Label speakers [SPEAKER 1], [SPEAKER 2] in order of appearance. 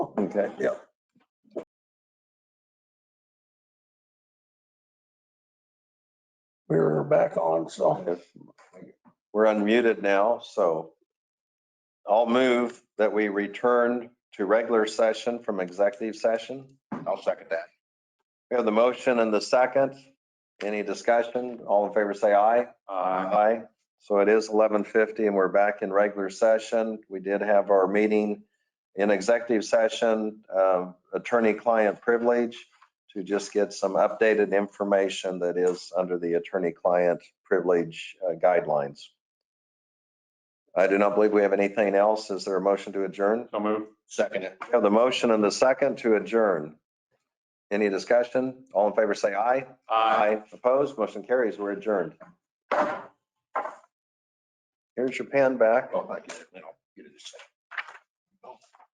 [SPEAKER 1] Okay, yeah. We're back on, so
[SPEAKER 2] We're unmuted now, so I'll move that we return to regular session from executive session.
[SPEAKER 3] I'll second that.
[SPEAKER 2] We have the motion and the second. Any discussion? All in favor, say aye.
[SPEAKER 3] Uh,
[SPEAKER 2] Aye. So it is 11:50 and we're back in regular session. We did have our meeting in executive session, uh, attorney-client privilege, to just get some updated information that is under the attorney-client privilege uh, guidelines. I do not believe we have anything else. Is there a motion to adjourn?
[SPEAKER 3] So move. Second it.
[SPEAKER 2] We have the motion and the second to adjourn. Any discussion? All in favor, say aye. Aye. Opposed, motion carries. We're adjourned. Here's your pen back.
[SPEAKER 3] Oh, thank you. Then I'll get it a second.